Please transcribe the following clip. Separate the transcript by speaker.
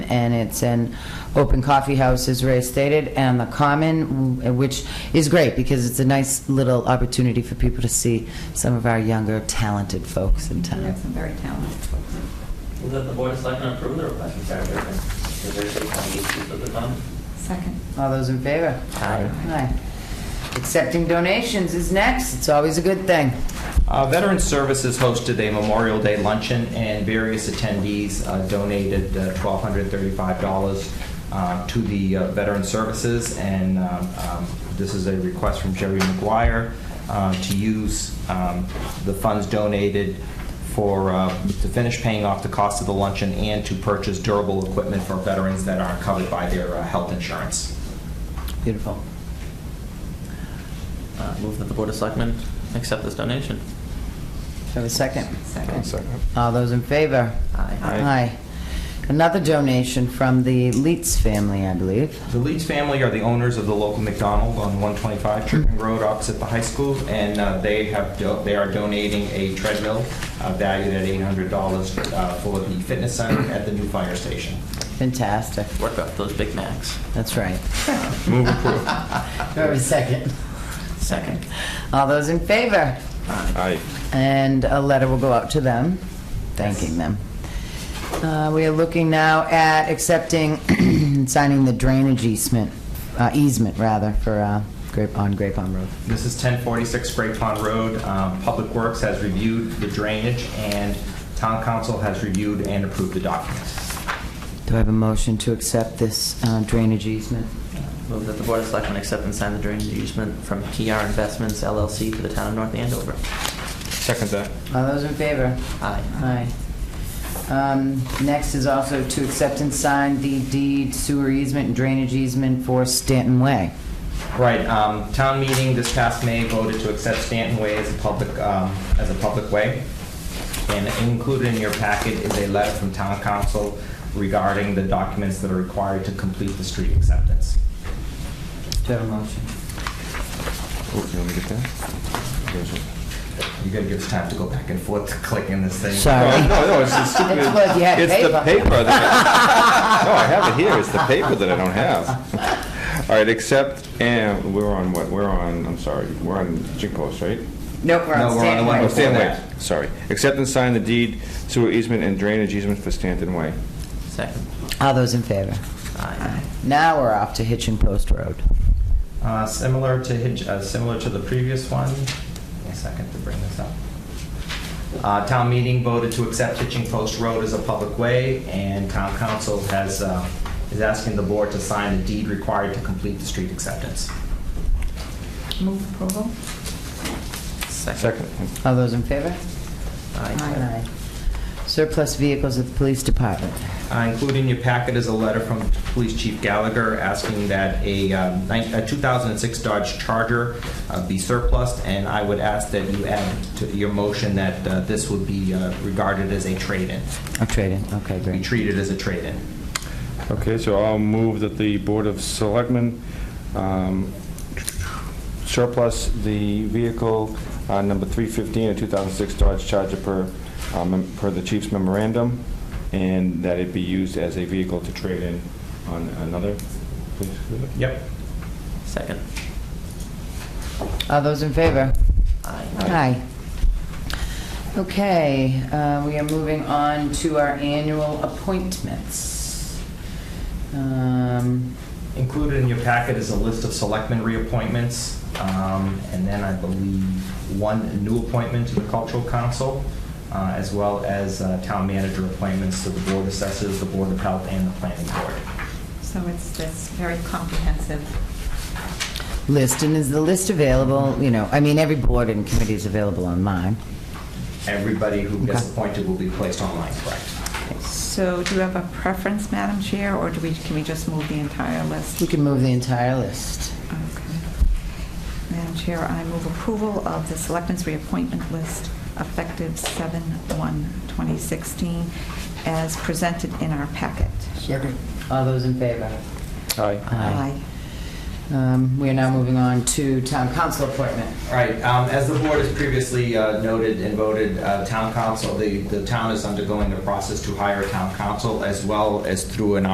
Speaker 1: and it's an open coffee house, as Ray stated, and the Common, w- which is great, because it's a nice little opportunity for people to see some of our younger, talented folks in
Speaker 2: We
Speaker 1: town.
Speaker 2: have some very talented folks.
Speaker 3: Move that the Board of Selectmen approve the request from Sarah Griffin, the Thursday County Youth of the Common.
Speaker 2: Second.
Speaker 1: All those in favor?
Speaker 3: Aye.
Speaker 1: Aye. Accepting donations is next, it's always a good thing.
Speaker 4: Uh, Veterans Services hosted a Memorial Day luncheon, and various attendees uh, donated uh, $1,235 uh, to the uh, Veteran Services, and um, um, this is a request from Jerry McGuire uh, to use um, the funds donated for, uh, to finish paying off the cost of the luncheon and to purchase durable equipment for veterans that aren't covered by their uh, health insurance.
Speaker 1: Beautiful.
Speaker 3: Uh, Move that the Board of Selectmen accept this donation.
Speaker 1: Do I have a second?
Speaker 2: Second.
Speaker 1: All those in favor?
Speaker 3: Aye.
Speaker 1: Aye. Another donation from the Leitz family, I believe.
Speaker 4: The Leeds family are the owners of the local McDonald on 125 Chicken Road opposite the high school, and uh, they have, do- they are donating a treadmill uh, valued at $800 uh, for the fitness center at the new fire station.
Speaker 1: Fantastic.
Speaker 3: Work up those Big Macs.
Speaker 1: That's right.
Speaker 5: Move approved.
Speaker 1: Do I have a second?
Speaker 3: Second.
Speaker 1: All those in favor?
Speaker 5: Aye.
Speaker 1: And a letter will go out to them, thanking them. Uh, We are looking now at accepting, and signing the drainage easement, uh, easement rather, for uh, Grape, on Grape Pond Road.
Speaker 4: This is 1046 Great Pond Road. Um, Public Works has reviewed the drainage, and Town Council has reviewed and approved the documents.
Speaker 1: Do I have a motion to accept this uh, drainage easement?
Speaker 3: Uh, Move that the Board of Selectmen accept and sign the drainage easement from PR Investments LLC to the town of North Andover.
Speaker 5: Second that.
Speaker 1: All those in favor?
Speaker 3: Aye.
Speaker 1: Aye. Um, Next is also to accept and sign the deed sewer easement and drainage easement for Stanton Way.
Speaker 4: Right, um, town meeting this past May voted to accept Stanton Way as a public, um, as a public way. And included in your packet is a letter from town council regarding the documents that are required to complete the street acceptance.
Speaker 1: Do I have a motion?
Speaker 5: Oh, you want me to get that? There's it.
Speaker 4: You're gonna give us time to go back and forth to click in this thing.
Speaker 1: Sorry.
Speaker 5: No, no, no, it's the stupid.
Speaker 1: It's what you had
Speaker 5: It's the
Speaker 1: paper.
Speaker 5: paper that, I- no, I have it here, it's the paper that I don't have. All right, except, and, we're on what, we're on, I'm sorry, we're on Jig Post, right?
Speaker 1: Nope, we're
Speaker 4: No,
Speaker 1: on
Speaker 4: we're on the
Speaker 1: Stanton
Speaker 4: one
Speaker 5: Oh,
Speaker 1: Way.
Speaker 4: before.
Speaker 5: Stanton Way,
Speaker 4: that.
Speaker 5: sorry. Accept and sign the deed sewer easement and drainage easement for Stanton Way.
Speaker 3: Second.
Speaker 1: All those in favor?
Speaker 3: Aye.
Speaker 1: Now we're off to Hitchin Post Road.
Speaker 4: Uh, similar to Hitch, uh, similar to the previous one, Give me a second to bring this up. Uh, town meeting voted to accept Hitching Post Road as a public way, and town council has, uh, is asking the board to sign the deed required to complete the street acceptance.
Speaker 2: Move approval?
Speaker 5: Second.
Speaker 1: All those in favor?
Speaker 3: Aye.
Speaker 1: Surplus vehicles at the police department.
Speaker 4: Uh, Included in your packet is a letter from Police Chief Gallagher asking that a um, nine- a 2006 Dodge Charger uh, be surplus, and I would ask that you add to your motion that uh, this would be uh, regarded as a trade-in,
Speaker 1: I'll trade in, okay,
Speaker 4: be
Speaker 1: great.
Speaker 4: treated as a trade-in.
Speaker 5: Okay, so I'll move that the Board of Selectmen um, surplus the vehicle uh, number 315, a 2006 Dodge Charger per, um, per the chief's memorandum, and that it be used as a vehicle to trade in on another. please.
Speaker 4: Yep.
Speaker 3: Second.
Speaker 1: All those in favor?
Speaker 3: Aye.
Speaker 1: Aye. Okay, uh, we are moving on to our annual appointments. Um,
Speaker 4: Included in your packet is a list of selectmen reappointments, um, and then I believe one new appointment to the Cultural Council, uh, as well as uh, town manager appointments to the Board of Assessors, the Board of Health, and the Planning Board.
Speaker 2: So it's this very comprehensive,
Speaker 1: List, and is the list available, you know, I mean, every board and committee is available online.
Speaker 4: Everybody who gets
Speaker 1: Okay.
Speaker 4: appointed will be placed online, correct?
Speaker 2: so do you have a preference, Madam Chair, or do we, can we just move the entire list?
Speaker 1: We can move the entire list.
Speaker 2: Okay. Madam Chair, I move approval of the Selectmen's reappointment list effective 7/1/2016 as presented in our packet.
Speaker 1: Second. All those in favor?
Speaker 5: Aye.
Speaker 1: Um, We are now moving on to town council appointment.
Speaker 4: All right, um, as the board has previously uh, noted and voted, uh, town council, the, the town is undergoing the process to hire a town council as well as through an